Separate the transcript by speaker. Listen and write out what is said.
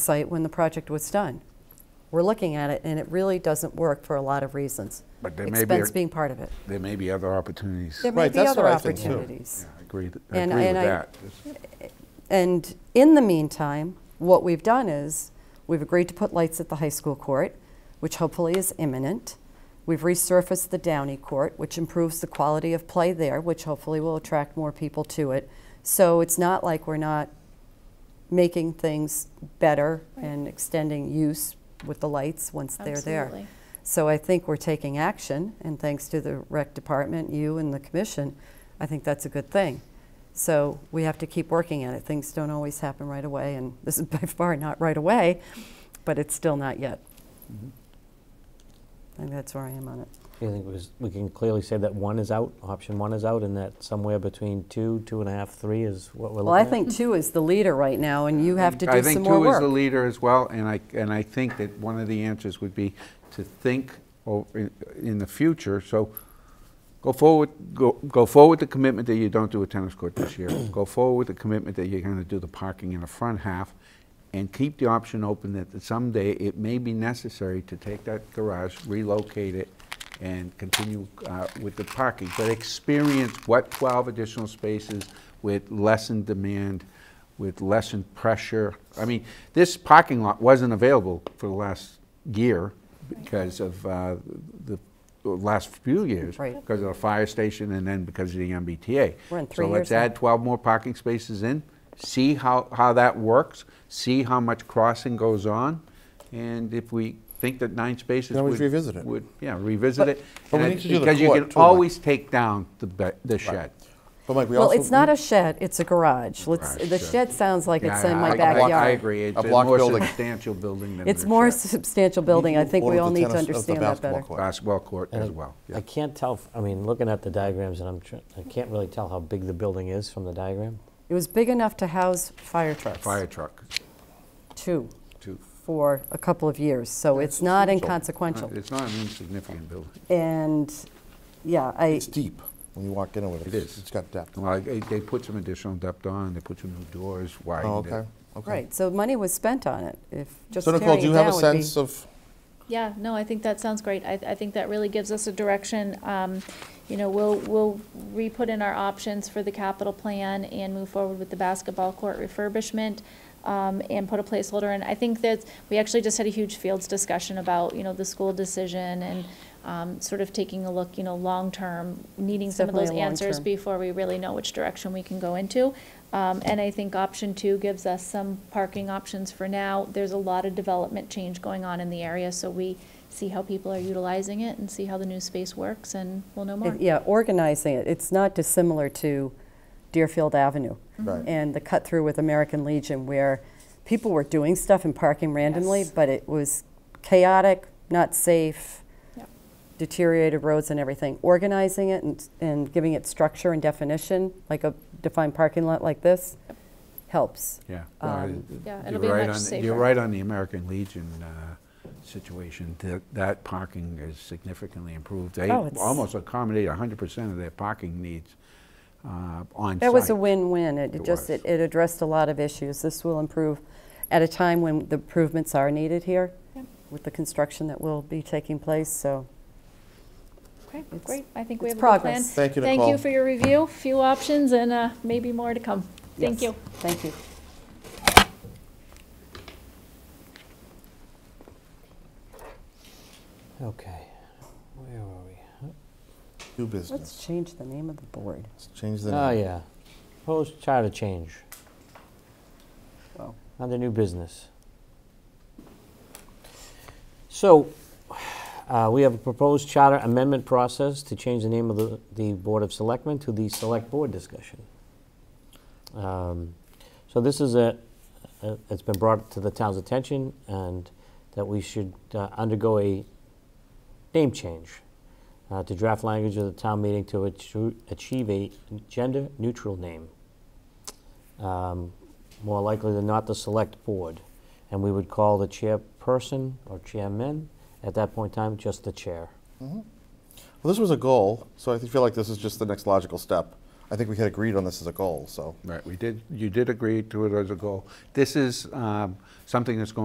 Speaker 1: site when the project was done. We're looking at it, and it really doesn't work for a lot of reasons.
Speaker 2: But there may be a-
Speaker 1: Expense being part of it.
Speaker 2: There may be other opportunities.
Speaker 1: There may
Speaker 3: Right,
Speaker 1: be
Speaker 3: that's
Speaker 1: other
Speaker 3: what I think, too.
Speaker 1: opportunities.
Speaker 2: I agree, th- I
Speaker 1: And-
Speaker 2: agree with
Speaker 1: and I-
Speaker 2: that.
Speaker 1: And in the meantime, what we've done is, we've agreed to put lights at the high school court, which hopefully is imminent. We've resurfaced the Downey Court, which improves the quality of play there, which hopefully will attract more people to it. So it's not like we're not making things better and extending use with the lights once they're there.
Speaker 4: Absolutely.
Speaker 1: So I think we're taking action, and thanks to the rec department, you and the commission, I think that's a good thing. So we have to keep working at it. Things don't always happen right away, and this is by far not right away, but it's still not yet. I think that's where I am on it.
Speaker 5: I think it was, we can clearly say that one is out, option one is out, and that somewhere between two, two and a half, three is what we're looking at.
Speaker 1: Well, I think two is the leader right now, and you have to
Speaker 2: I
Speaker 1: do some
Speaker 2: think
Speaker 1: more
Speaker 2: two is
Speaker 1: work.
Speaker 2: the leader as well, and I, and I think that one of the answers would be to think o- in in the future, so go forward, go, go forward the commitment that you don't do a tennis court this year. Go forward with the commitment that you're gonna do the parking in the front half, and keep the option open that someday it may be necessary to take that garage, relocate it, and continue uh, with the parking. But experience what 12 additional spaces with lessened demand, with lessened pressure. I mean, this parking lot wasn't available for the last year because of uh, the the last few years.
Speaker 1: Right.
Speaker 2: Because of the fire station and then because of the MBTA.
Speaker 1: We're in three
Speaker 2: So
Speaker 1: years
Speaker 2: let's
Speaker 1: now.
Speaker 2: add 12 more parking spaces in, see how, how that works, see how much crossing goes on, and if we think that nine spaces
Speaker 3: Then
Speaker 2: would...
Speaker 3: we should revisit it.
Speaker 2: would- Yeah, revisit it.
Speaker 3: but we
Speaker 2: And I-
Speaker 3: need to do the
Speaker 2: Because you
Speaker 3: court
Speaker 2: can
Speaker 3: too, Mike.
Speaker 2: always take down the be- the shed.
Speaker 3: But Mike, we
Speaker 1: Well,
Speaker 3: also.
Speaker 1: it's not a shed, it's a garage. Let's,
Speaker 2: Garage,
Speaker 1: the
Speaker 2: sure.
Speaker 1: shed sounds like it's
Speaker 2: Yeah,
Speaker 1: in my
Speaker 2: I- I-
Speaker 1: backyard.
Speaker 2: I agree, it's
Speaker 3: A
Speaker 2: a
Speaker 3: block
Speaker 2: more
Speaker 3: building.
Speaker 2: substantial building than the shed.
Speaker 1: It's more substantial building. I think we all need to understand that better.
Speaker 2: Basketball court as
Speaker 5: And
Speaker 2: well, yeah.
Speaker 5: I can't tell, f- I mean, looking at the diagrams, and I'm, tr- I can't really tell how big the building is from the diagram.
Speaker 1: It was big enough to house fire trucks.
Speaker 2: fire truck,
Speaker 1: Two,
Speaker 2: too.
Speaker 1: for a couple of years, so it's not inconsequential.
Speaker 2: It's not an insignificant building.
Speaker 1: And, yeah, I,
Speaker 3: It's deep when you walk in with it.
Speaker 2: It is.
Speaker 3: It's got depth.
Speaker 2: Well, they they put some additional depth on, they put some new doors,
Speaker 3: Oh,
Speaker 2: widened
Speaker 3: okay,
Speaker 2: it.
Speaker 3: okay.
Speaker 1: right, so money was spent on it, if just
Speaker 3: So
Speaker 1: tearing it
Speaker 3: Nicole, do you have a
Speaker 1: down would be-
Speaker 3: sense of,
Speaker 4: Yeah, no, I think that sounds great. I, I think that really gives us a direction. Um, you know, we'll, we'll re-put in our options for the capital plan and move forward with the basketball court refurbishment, um, and put a placeholder in. I think that, we actually just had a huge fields discussion about, you know, the school decision and, um, sort of taking a look, you know, long-term, needing some of those
Speaker 1: Definitely a
Speaker 4: answers
Speaker 1: long-term.
Speaker 4: before we really know which direction we can go into. Um, And I think option two gives us some parking options for now. There's a lot of development change going on in the area, so we see how people are utilizing it and see how the new space works, and we'll know more.
Speaker 1: It- Yeah, organizing it, it's not dissimilar to Deerfield Avenue.
Speaker 3: Right.
Speaker 1: And the cut through with American Legion where people were doing stuff and parking randomly,
Speaker 4: Yes.
Speaker 1: but it was chaotic, not safe,
Speaker 4: Yep.
Speaker 1: deteriorated roads and everything. Organizing it and, and giving it structure and definition, like a defined parking lot like this, helps.
Speaker 2: Yeah.
Speaker 1: Um,
Speaker 2: well,
Speaker 4: Yeah,
Speaker 2: you're
Speaker 4: it'll be
Speaker 2: right
Speaker 4: much
Speaker 2: on-
Speaker 4: safer.
Speaker 2: You're right on the American Legion uh, situation. That- That parking is significantly improved. They
Speaker 1: Oh, it's-
Speaker 2: almost accommodate 100% of their parking needs uh, on site.
Speaker 1: That was a win-win. It
Speaker 2: It
Speaker 1: it just,
Speaker 2: was.
Speaker 1: it it addressed a lot of issues. This will improve at a time when the improvements are needed here
Speaker 4: Yep.
Speaker 1: with the construction that will be taking place, so.
Speaker 4: Okay,
Speaker 1: It's-
Speaker 4: great. I think we
Speaker 1: it's
Speaker 4: have a good plan.
Speaker 1: progress.
Speaker 3: Thank you,
Speaker 4: Thank
Speaker 3: Nicole.
Speaker 4: you for your review, few options, and uh, maybe more to come. Thank
Speaker 1: yes.
Speaker 4: you.
Speaker 1: Thank you.
Speaker 5: Okay, where are we?
Speaker 3: new
Speaker 1: Let's
Speaker 3: business?
Speaker 1: change the name of the board.
Speaker 3: Let's change
Speaker 2: Ah,
Speaker 3: the
Speaker 5: Oh,
Speaker 3: name.
Speaker 5: yeah. Proposed charter change,
Speaker 1: Well,
Speaker 5: under new business. So, uh, we have a proposed charter amendment process to change the name of the, the Board of Selectmen to the Select Board discussion. Um, So this is a, a- it's been brought to the town's attention and that we should uh, undergo a name change uh, to draft language of the town meeting to achu- achieve a gender-neutral name. Um, More likely than not, the Select Board. And we would call the chairperson or chairman, at that point in time, just the chair.
Speaker 3: Well, this was a goal, so I feel like this is just the next logical step. I think we had agreed on this as a goal, so.
Speaker 2: Right, we did, you did agree to it as a goal. This is um, something that's going